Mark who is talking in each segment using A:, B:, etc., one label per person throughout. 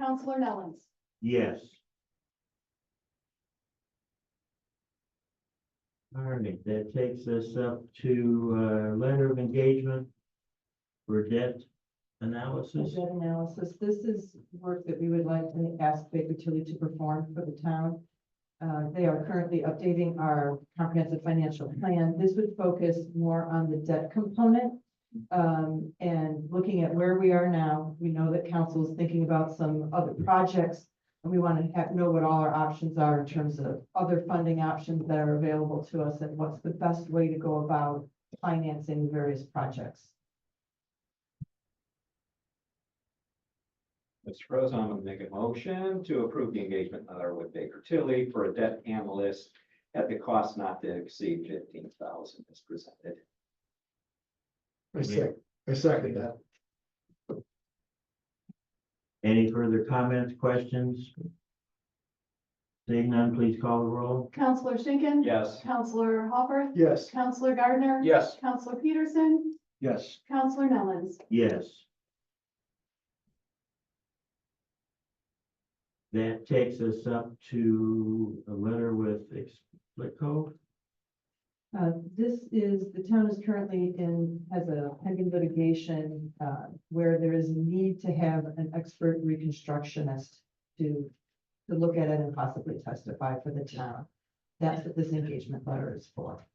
A: Counselor Nellens.
B: Yes. All right, that takes us up to, uh, letter of engagement for debt analysis.
C: Budget analysis, this is work that we would like to ask Baker Tilly to perform for the town. Uh, they are currently updating our comprehensive financial plan. This would focus more on the debt component. um, and looking at where we are now, we know that council is thinking about some other projects. And we want to have, know what all our options are in terms of other funding options that are available to us and what's the best way to go about financing various projects.
D: Mr. President, I'm gonna make a motion to approve the engagement letter with Baker Tilly for a debt analyst at the cost not to exceed fifteen thousand as presented.
E: I sec, I second that.
B: Any further comments, questions? Seeing none, please call the roll.
A: Counselor Schinkin.
D: Yes.
A: Counselor Hopper.
E: Yes.
A: Counselor Gardner.
E: Yes.
A: Counselor Peterson.
E: Yes.
A: Counselor Nellens.
B: Yes. That takes us up to a letter with Explico.
C: Uh, this is, the town is currently in, has a pending litigation, uh, where there is a need to have an expert reconstructionist to, to look at it and possibly testify for the town. That's what this engagement letter is for.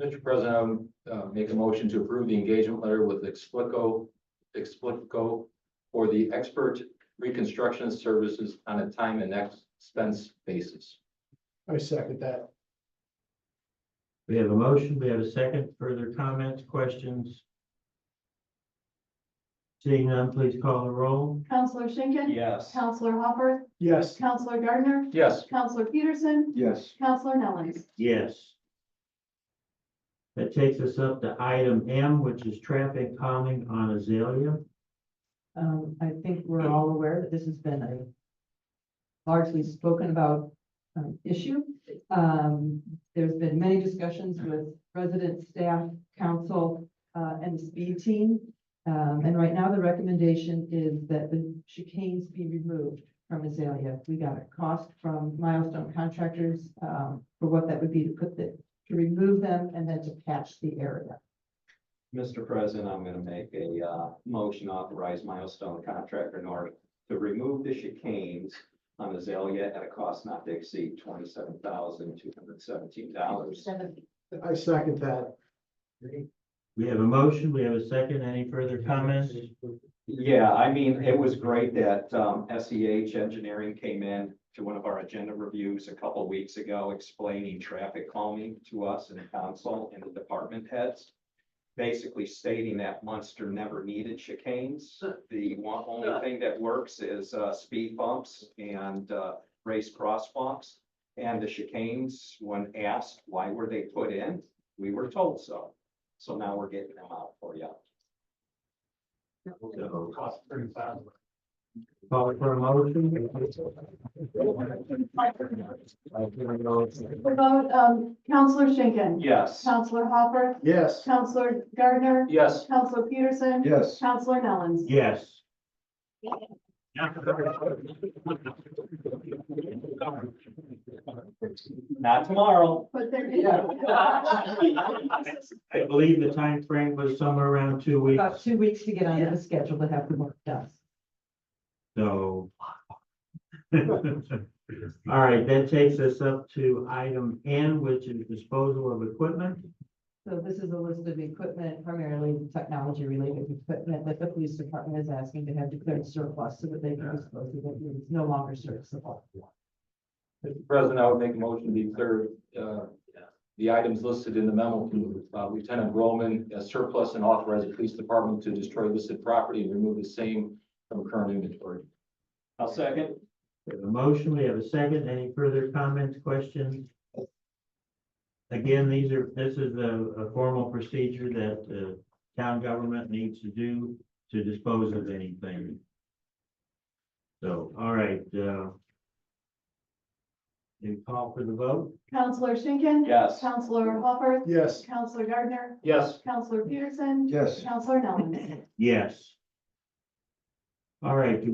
F: Mr. President, I would, uh, make a motion to approve the engagement letter with Explico, Explico for the expert reconstruction services on a time and expense basis.
E: I second that.
B: We have a motion, we have a second, further comments, questions? Seeing none, please call the roll.
A: Counselor Schinkin.
D: Yes.
A: Counselor Hopper.
E: Yes.
A: Counselor Gardner.
F: Yes.
A: Counselor Peterson.
E: Yes.
A: Counselor Nellens.
B: Yes. That takes us up to item M, which is traffic calming on Azalea.
C: Um, I think we're all aware that this has been a largely spoken about, um, issue. Um, there's been many discussions with residents, staff, council, uh, and the speed team. Um, and right now the recommendation is that the chicanes be removed from Azalea. We got a cost from Milestone Contractors, um, for what that would be to put the, to remove them and then to patch the area.
D: Mr. President, I'm gonna make a, uh, motion authorize milestone contractor North to remove the chicanes on Azalea at a cost not to exceed twenty-seven thousand two hundred seventeen dollars.
E: I second that.
B: We have a motion, we have a second, any further comments?
D: Yeah, I mean, it was great that um SEH Engineering came in to one of our agenda reviews a couple weeks ago explaining traffic calming to us and council and the department heads. Basically stating that Munster never needed chicanes. The one, only thing that works is uh speed bumps and uh race crosswalks. And the chicanes, when asked why were they put in, we were told so. So now we're getting them out for you.
B: So, Call for a motion?
A: The vote, um, Counselor Schinkin.
D: Yes.
A: Counselor Hopper.
E: Yes.
A: Counselor Gardner.
F: Yes.
A: Counselor Peterson.
E: Yes.
A: Counselor Nellens.
B: Yes.
D: Not tomorrow.
A: But there
B: I believe the time frame was somewhere around two
C: About
B: weeks,
C: two weeks to get onto the schedule to have the work done.
B: so. All right, that takes us up to item N, which is disposal of equipment.
C: So this is a list of equipment, primarily technology-related equipment that the police department is asking to have declared surplus so that they can dispose of it, when it's no longer serviceable.
F: Mr. President, I would make a motion to declare, uh, the items listed in the memo to uh, Lieutenant Roman as surplus and authorize the police department to destroy listed property and remove the same from current inventory.
D: I'll second.
B: We have a motion, we have a second. Any further comments, questions? Again, these are, this is a, a formal procedure that the town government needs to do to dispose of anything. So, all right, uh. You call for the vote?
A: Counselor Schinkin.
D: Yes.
A: Counselor Hopper.
E: Yes.
A: Counselor Gardner.
F: Yes.
A: Counselor Peterson.
E: Yes.
A: Counselor Nellens.
B: Yes. All right, do